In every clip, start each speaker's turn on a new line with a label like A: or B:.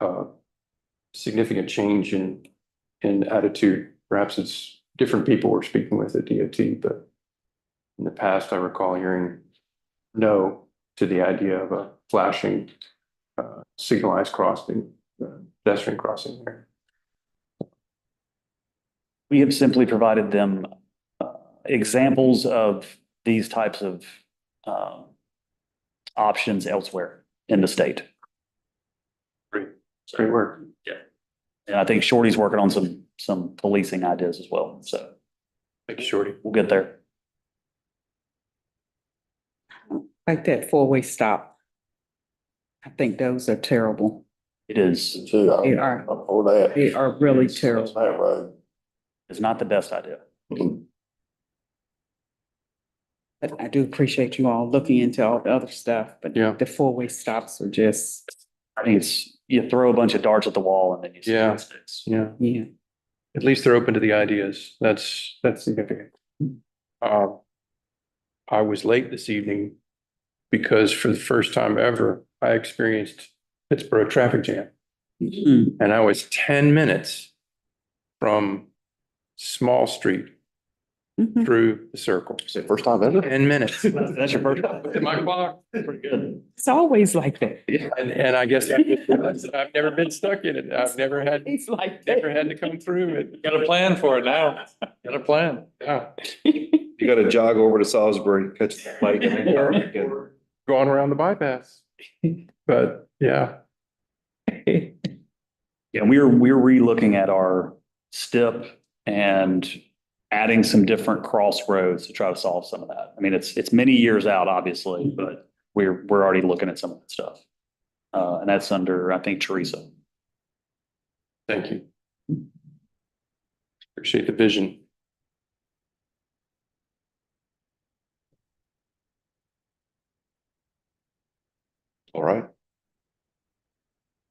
A: uh, significant change in, in attitude. Perhaps it's different people we're speaking with at DOT, but in the past, I recall hearing no to the idea of a flashing uh, signalized crossing, uh, pedestrian crossing there.
B: We have simply provided them uh, examples of these types of um, options elsewhere in the state.
A: It's great work.
B: And I think Shorty's working on some, some policing ideas as well. So
A: Thank you, Shorty.
B: we'll get there.
C: Like that four-way stop. I think those are terrible.
B: It is,
D: Too,
A: Oh,
C: They
D: I'm,
C: are,
D: I'm for that.
C: they are really
D: It's- it's
C: terrible.
D: That road.
B: it's not the best idea.
C: But I do appreciate you all looking into all the other stuff, but
A: Yeah.
C: the four-way stops are just,
B: I think it's, you throw a bunch of darts at the wall and then you. see
A: Yeah.
B: what sticks.
A: Yeah,
C: yeah.
A: at least they're open to the ideas. That's, that's significant. Uh, I was late this evening because for the first time ever, I experienced Pittsburgh traffic jam.
C: Mm,
A: And I was ten minutes from Small Street
C: mhm.
A: through the circle.
D: First time ever?
A: Ten minutes.
B: That's your first.
A: At my clock.
B: Pretty good.
C: It's always like that.
A: And, and I guess I just realized that I've never been stuck in it. I've never had,
C: It's like
A: never
C: that.
A: had to come through it.
E: Got a plan for it now. Got a plan.
A: Yeah.
F: You gotta jog over to Salisbury, catch the bike and then
A: Or-
F: go back in.
A: or Going around the bypass. But yeah,
B: Yeah, we're, we're relooking at our STIP and adding some different crossroads to try to solve some of that. I mean, it's, it's many years out, obviously, but we're, we're already looking at some of that stuff. Uh, and that's under, I think, Teresa.
A: thank you. Appreciate the vision.
D: All right.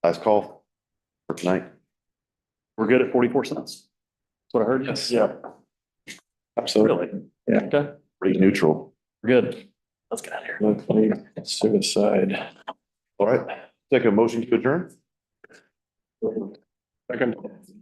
D: Last call for tonight.
B: We're good at forty-four cents. That's what I heard. Yes. Yeah,
D: Absolutely.
B: really.
D: Rate neutral.
B: We're good. Let's get out of here.
E: Suicide.
D: All right. Take a motion to adjourn?
A: Second.